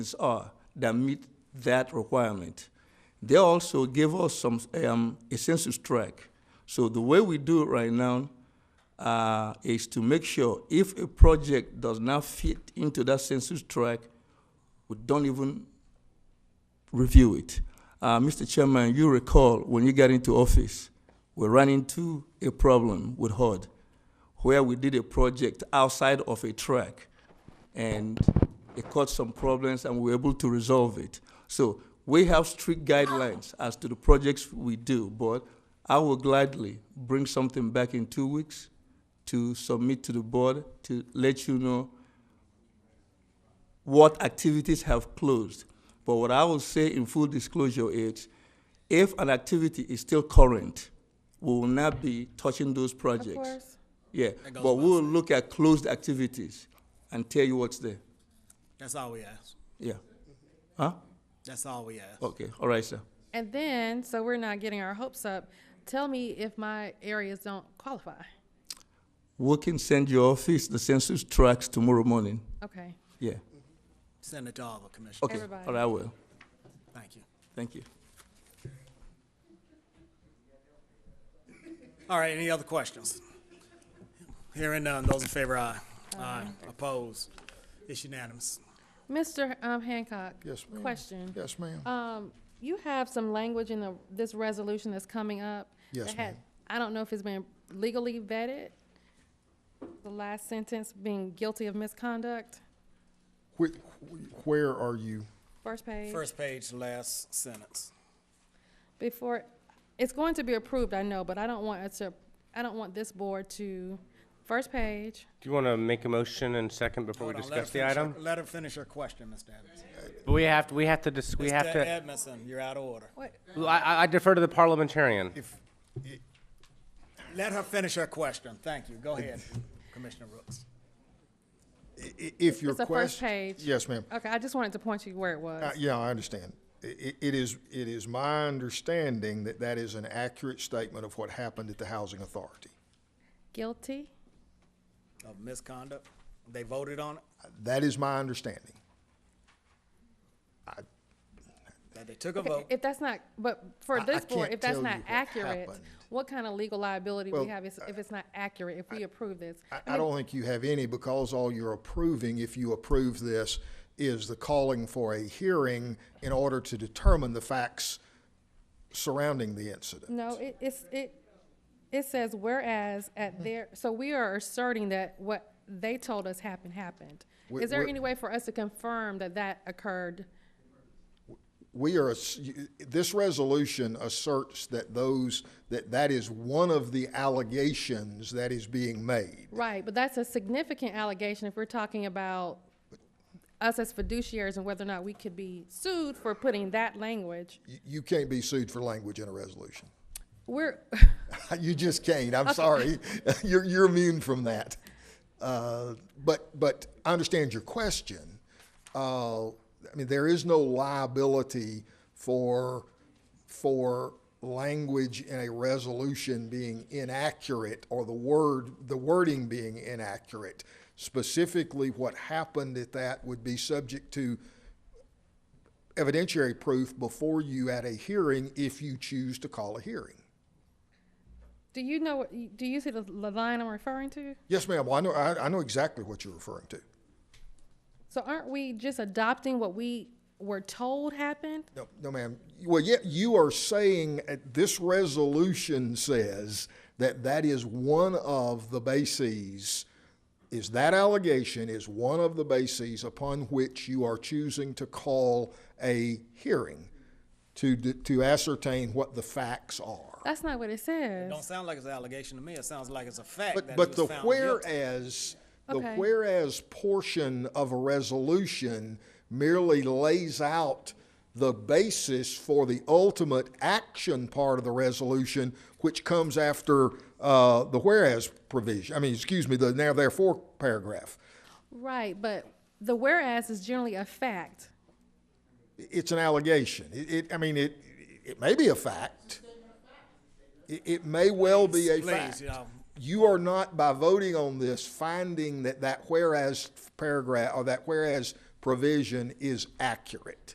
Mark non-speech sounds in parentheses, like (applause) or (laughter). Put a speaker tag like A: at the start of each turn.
A: organizations are that meet that requirement. They also gave us some, um, a census track. So the way we do it right now, uh, is to make sure if a project does not fit into that census track, we don't even review it. Uh, Mr. Chairman, you recall when you got into office, we ran into a problem with HUD where we did a project outside of a track and it caused some problems and we were able to resolve it. So we have strict guidelines as to the projects we do, but I will gladly bring something back in two weeks to submit to the board to let you know what activities have closed. But what I will say in full disclosure is, if an activity is still current, we will not be touching those projects.
B: course.
A: Yeah,
C: That goes
A: but we
C: without
A: will look at closed activities and tell you what's there.
C: That's all we ask.
A: Yeah. Huh?
C: That's all we ask.
A: Okay, all right, sir.
B: And then, so we're not getting our hopes up, tell me if my areas don't qualify.
A: We can send your office the census tracks tomorrow morning.
B: Okay,
A: Yeah.
C: Send it to all the commissioners.
A: Okay,
B: Everybody.
A: all right, I will.
C: Thank you.
A: Thank you.
C: All right, any other questions? Hearing none, those in favor, aye. Aye. Opposed? It's unanimous.
B: Mr. um, Hancock.
D: Yes, ma'am.
B: Question.
D: Yes, ma'am.
B: Um, you have some language in the, this resolution that's coming up.
D: Yes,
B: that had-
D: ma'am.
B: I don't know if it's been legally vetted. The last sentence being guilty of misconduct,
D: Whi- Where are you?
B: first page.
C: First page, last sentence.
B: Before, it's going to be approved, I know, but I don't want it to, I don't want this board to, first page.
E: Do you want to make a motion and second before we
C: Hold on, let her
E: discuss the
C: finish her-
E: item?
C: Let her finish her question, Mr. Edmondson.
E: We have, to. we have to, dis- we have
C: Mr.
E: to,
C: Edmondson, you're out of order.
B: What,
E: I- I I defer to the parliamentarian.
D: If,
C: Let her finish her question. Thank you. Go ahead, Commissioner Rooks.
D: i- i- if your
B: It's the
D: question.
B: first page.
D: Yes, ma'am.
B: Okay, I just wanted to point you where it was.
D: Uh, Yeah, I understand. I- i- It is, it is my understanding that that is an accurate statement of what happened at the Housing Authority.
B: Guilty?
C: Of misconduct, they voted on it,
D: That is my understanding.
C: that they took a vote.
B: If that's not, but for
D: I- I
B: this board,
D: can't
B: if that's
D: tell
B: not
D: you what
B: accurate,
D: happened.
B: what kind of legal liability we
D: Well,
B: have is- if it's not accurate, if we approve this?
D: I- I don't think you have any because all you're approving, if you approve this, is the calling for a hearing in order to determine the facts surrounding the incident.
B: No, it, it's, it, it says whereas
D: Hmm.
B: at their, so we are asserting that what they told us happened, happened.
D: We-
B: Is there
D: we're-
B: any way for us to confirm that that occurred?
D: we are, ass- this resolution asserts that those, that that is one of the allegations that is being made.
B: Right, but that's a significant allegation if we're talking about us as fiduciaries and whether or not we could be sued for putting that language.
D: You- You can't be sued for language in a resolution.
B: We're, (laughs)
D: (laughs) You just can't, I'm sorry. (laughs) You're, you're immune from that. Uh, But, but I understand your question. Uh, I mean, there is no liability for, for language in a resolution being inaccurate or the word, the wording being inaccurate. Specifically, what happened at that would be subject to evidentiary proof before you at a hearing if you choose to call a hearing.
B: do you know, what- do you see the the line I'm referring to?
D: Yes, ma'am. Well, I know, I, I know exactly what you're referring to.
B: So aren't we just adopting what we were told happened?
D: No, no, ma'am. Well, yet you are saying uh, this resolution says that that is one of the bases, is that allegation is one of the bases upon which you are choosing to call a hearing to, d- to ascertain what the facts are.
B: That's not what it says.
C: Don't sound like it's an allegation to me. It sounds like it's a fact that
D: But,
C: he
D: but
C: was
D: the
C: found guilty.
D: whereas, the
B: Okay.
D: whereas portion of a resolution merely lays out the basis for the ultimate action part of the resolution, which comes after uh, the whereas provision, I mean, excuse me, the now therefore paragraph.
B: Right, but the whereas is generally a fact.
D: It's an allegation. It, it- I mean, it, it may be a fact. It, it may well be a
C: Please,
D: fact.
C: yeah.
D: You are not, by voting on this, finding that that whereas paragraph, or that whereas provision is accurate.